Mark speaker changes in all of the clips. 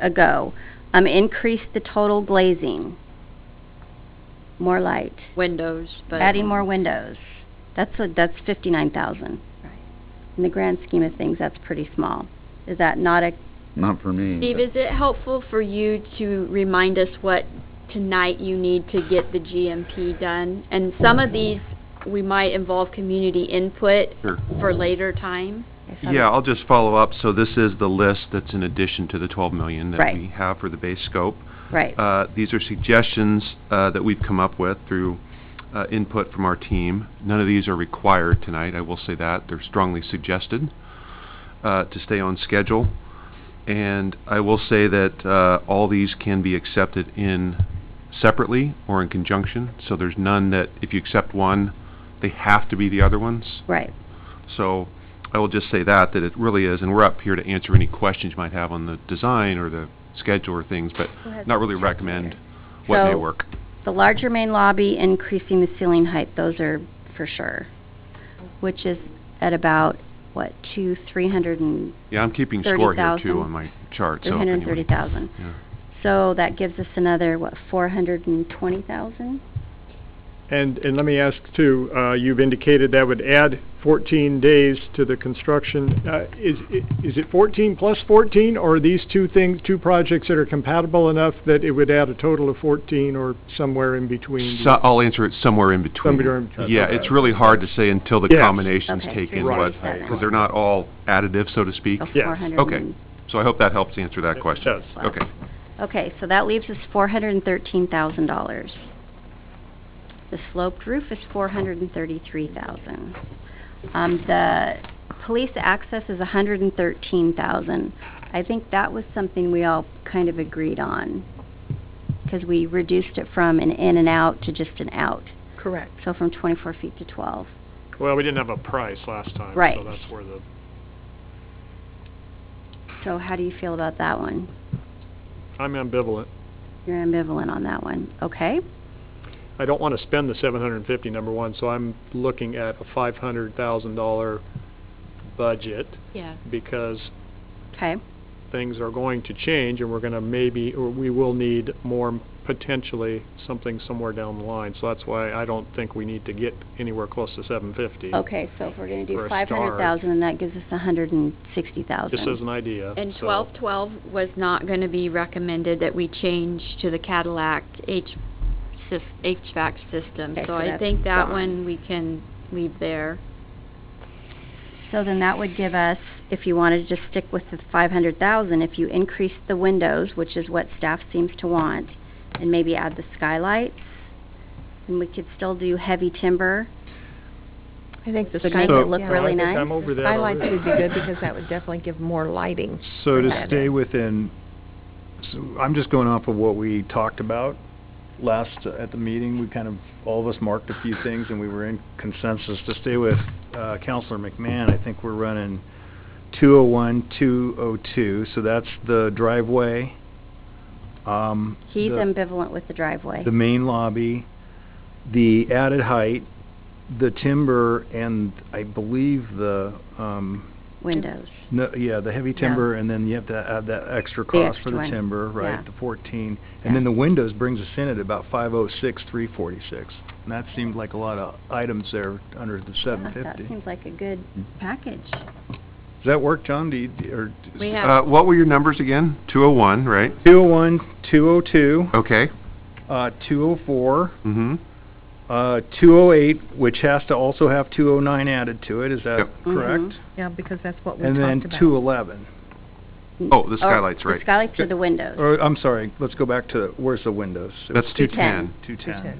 Speaker 1: ago. Um, increase the total glazing. More light.
Speaker 2: windows, but.
Speaker 1: Adding more windows. That's a, that's fifty-nine thousand.
Speaker 2: Right.
Speaker 1: In the grand scheme of things, that's pretty small. Is that not a,
Speaker 3: Not for me.
Speaker 2: Steve,
Speaker 3: but-
Speaker 2: is it helpful for you to remind us what tonight you need to get the GMP done? And some of these, we might involve community input
Speaker 4: Sure.
Speaker 2: for later time.
Speaker 1: I saw
Speaker 4: Yeah,
Speaker 1: that-
Speaker 4: I'll just follow up. So this is the list that's in addition to the 12 million that
Speaker 1: Right.
Speaker 4: we have for the base scope.
Speaker 1: right,
Speaker 4: Uh, These are suggestions uh, that we've come up with through uh, input from our team. None of these are required tonight, I will say that. They're strongly suggested uh, to stay on schedule. And I will say that uh, all these can be accepted in separately or in conjunction. So there's none that, if you accept one, they have to be the other ones.
Speaker 1: right.
Speaker 4: So I will just say that, that it really is, and we're up here to answer any questions you might have on the design or the schedule or things, but
Speaker 1: Who has
Speaker 4: not
Speaker 1: the
Speaker 4: really
Speaker 1: charts
Speaker 4: recommend
Speaker 1: here?
Speaker 4: what may
Speaker 1: So-
Speaker 4: work.
Speaker 1: The larger main lobby, increasing the ceiling height, those are for sure. Which is at about, what, two, three hundred and,
Speaker 4: Yeah, I'm keeping score here
Speaker 1: 30,000.
Speaker 4: too on my chart,
Speaker 1: three
Speaker 4: so if
Speaker 1: hundred and
Speaker 4: anyone-
Speaker 1: thirty thousand.
Speaker 4: Yeah.
Speaker 1: So that gives us another, what, four hundred and twenty thousand?
Speaker 5: And, and let me ask too, uh, you've indicated that would add fourteen days to the construction. Uh, is, i- is it fourteen plus fourteen, or are these two things, two projects that are compatible enough that it would add a total of fourteen or somewhere in between?
Speaker 4: So I'll answer it somewhere in between.
Speaker 5: Somewhere in between.
Speaker 4: Yeah, it's really hard to say until the
Speaker 5: Yes.
Speaker 4: combinations
Speaker 1: Okay,
Speaker 4: take in
Speaker 5: Right.
Speaker 4: what, because they're not all additive, so to speak.
Speaker 1: So
Speaker 5: Yes.
Speaker 1: four hundred
Speaker 4: Okay.
Speaker 1: and-
Speaker 4: So I hope that helps answer that
Speaker 5: It
Speaker 4: question.
Speaker 5: does.
Speaker 4: Okay.
Speaker 1: Okay, so that leaves us four hundred and thirteen thousand dollars. The sloped roof is four hundred and thirty-three thousand. Um, the police access is a hundred and thirteen thousand. I think that was something we all kind of agreed on, because we reduced it from an in and out to just an out,
Speaker 6: Correct.
Speaker 1: so from twenty-four feet to twelve.
Speaker 5: Well, we didn't have a price last time,
Speaker 1: so Right. that's
Speaker 5: where the.
Speaker 1: So how do you feel about that one?
Speaker 5: I'm ambivalent.
Speaker 1: You're ambivalent on that one, okay?
Speaker 5: I don't want to spend the seven hundred and fifty, number one, so I'm looking at a five hundred thousand dollar budget
Speaker 2: Yeah.
Speaker 5: because
Speaker 1: Okay,
Speaker 5: things are going to change and we're going to maybe, or we will need more m- potentially something somewhere down the line. So that's why I don't think we need to get anywhere close to seven fifty.
Speaker 1: okay, so if we're gonna
Speaker 5: For
Speaker 1: do
Speaker 5: a
Speaker 1: five
Speaker 5: start.
Speaker 1: hundred thousand, and that gives us a hundred and sixty thousand.
Speaker 5: Just as an idea.
Speaker 2: And
Speaker 5: so-
Speaker 2: twelve twelve was not gonna be recommended that we change to the Cadillac H, sys- HVAC system.
Speaker 1: Okay, so
Speaker 2: So I
Speaker 1: that's
Speaker 2: think that
Speaker 1: gone.
Speaker 2: one we can leave there.
Speaker 1: So then that would give us, if you wanted to just stick with the five hundred thousand, if you increase the windows, which is what staff seems to want, and maybe add the skylights, and we could still do heavy timber.
Speaker 6: I think the
Speaker 1: Would make it
Speaker 6: skylight-
Speaker 1: look
Speaker 6: yeah.
Speaker 1: really
Speaker 5: I think
Speaker 1: nice.
Speaker 5: I'm over that
Speaker 6: Skylights
Speaker 5: already.
Speaker 6: would be good because that would definitely give more lighting.
Speaker 7: So to
Speaker 6: Right.
Speaker 7: stay within, so I'm just going off of what we talked about last, uh, at the meeting, we kind of, all of us marked a few things and we were in consensus to stay with, uh, Counselor McMahon, I think we're running two oh one, two oh two, so that's the driveway, um.
Speaker 1: He's
Speaker 7: the-
Speaker 1: ambivalent with the driveway.
Speaker 7: the main lobby, the added height, the timber, and I believe the, um,
Speaker 1: Windows.
Speaker 7: no, yeah, the heavy
Speaker 6: Yeah.
Speaker 7: timber, and then you have to add that extra cost
Speaker 1: extra
Speaker 7: for the
Speaker 1: one.
Speaker 7: timber, right,
Speaker 1: Yeah.
Speaker 7: the fourteen.
Speaker 1: Yeah.
Speaker 7: And then the windows brings us in at about five oh six, three forty-six. And that seemed like a lot of items there under the
Speaker 1: Yeah,
Speaker 7: seven
Speaker 1: That
Speaker 7: fifty. Does
Speaker 1: seems like a good package.
Speaker 7: that work, John? Do you, do- or?
Speaker 2: We
Speaker 4: Uh,
Speaker 2: have,
Speaker 4: What were your numbers again? 201, right?
Speaker 7: Two oh one, two oh two,
Speaker 4: Okay.
Speaker 7: uh, two oh four,
Speaker 4: Mm-hmm.
Speaker 7: uh, two oh eight, which has to also have two oh nine added to it, is that
Speaker 4: Yep.
Speaker 7: correct?
Speaker 1: Mhm.
Speaker 6: Yeah, because that's what we talked
Speaker 7: And
Speaker 6: about.
Speaker 7: then two eleven.
Speaker 4: Oh, the skylights,
Speaker 1: The
Speaker 4: right.
Speaker 1: skylights or the windows.
Speaker 7: Or, I'm sorry, let's go back to, where's the windows? It
Speaker 4: That's
Speaker 7: was
Speaker 4: 210.
Speaker 1: 210.
Speaker 7: Two-ten.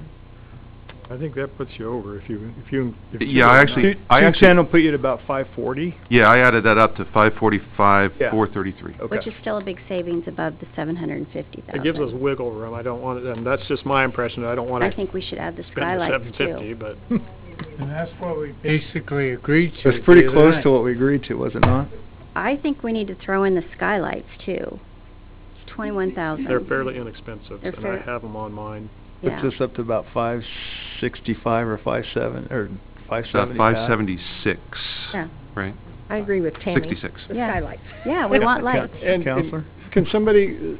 Speaker 5: I think that puts you over if you, if you. if you
Speaker 4: Yeah, I
Speaker 5: go
Speaker 4: actually-
Speaker 5: nine.
Speaker 4: I actually-
Speaker 7: Two-ten will put you at about five forty.
Speaker 4: Yeah, I added that up to 545,
Speaker 7: Yeah.
Speaker 4: 433.
Speaker 7: Okay.
Speaker 1: Which is still a big savings above the seven hundred and fifty thousand.
Speaker 5: It gives us wiggle room. I don't want it, and that's just my impression. I don't want
Speaker 1: I
Speaker 5: to
Speaker 1: think we should add the
Speaker 5: spend the
Speaker 1: skylights
Speaker 5: seven fifty,
Speaker 1: too.
Speaker 5: but
Speaker 8: And that's what we basically agreed to.
Speaker 7: It's pretty
Speaker 8: the other
Speaker 7: close
Speaker 8: night.
Speaker 7: to what we agreed to, was it not?
Speaker 1: I think we need to throw in the skylights too. It's twenty-one thousand.
Speaker 5: they're fairly inexpensive,
Speaker 1: They're
Speaker 5: and I
Speaker 1: fair-
Speaker 5: have them on mine.
Speaker 1: Yeah.
Speaker 7: Puts us up to about five sixty-five or five seven, or five
Speaker 4: Uh,
Speaker 7: seventy-five?
Speaker 4: 576,
Speaker 1: Yeah.
Speaker 4: right?
Speaker 6: I agree with Tammy.
Speaker 4: 66.
Speaker 6: The
Speaker 1: Yeah.
Speaker 6: skylights.
Speaker 1: Yeah, we want
Speaker 7: light.
Speaker 1: lights.
Speaker 5: And- and
Speaker 7: Counselor?
Speaker 5: can somebody,